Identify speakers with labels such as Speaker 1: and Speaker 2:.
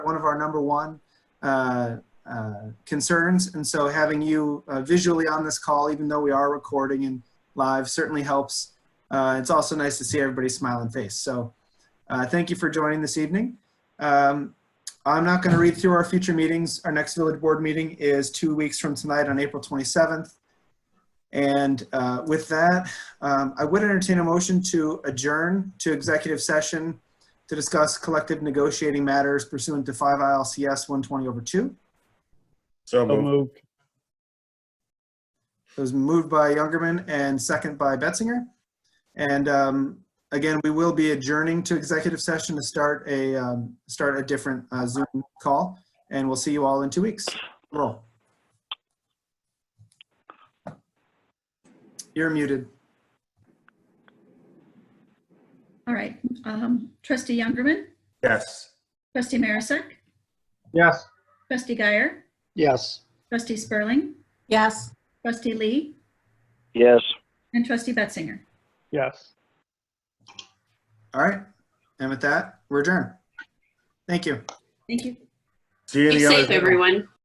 Speaker 1: one of our number one uh, uh, concerns. And so having you uh, visually on this call, even though we are recording and live, certainly helps. Uh, It's also nice to see everybody's smiling face. So uh, thank you for joining this evening. Um, I'm not going to read through our future meetings. Our next village board meeting is two weeks from tonight on April 27th. And uh, with that, um, I would entertain a motion to adjourn to executive session to discuss collective negotiating matters pursuant to 5 ILCS 120 over 2.
Speaker 2: So
Speaker 3: So
Speaker 2: moved.
Speaker 3: moved.
Speaker 1: It was moved by Youngerman and second by Betzinger. And um, again, we will be adjourning to executive session to start a, um, start a different uh, Zoom call. And we'll see you all in two weeks. Roll. You're muted.
Speaker 4: All right, um, trustee Youngerman,
Speaker 2: Yes.
Speaker 4: trustee Marisak,
Speaker 3: Yes.
Speaker 4: trustee Guyer,
Speaker 3: Yes.
Speaker 4: trustee Spurling,
Speaker 5: Yes.
Speaker 4: trustee Lee,
Speaker 6: Yes.
Speaker 4: and trustee Betzinger.
Speaker 3: Yes.
Speaker 1: All right. And with that, we're adjourned. Thank you.
Speaker 4: Thank you.
Speaker 2: See you
Speaker 7: Be
Speaker 2: the other
Speaker 7: safe,
Speaker 2: day.
Speaker 7: everyone.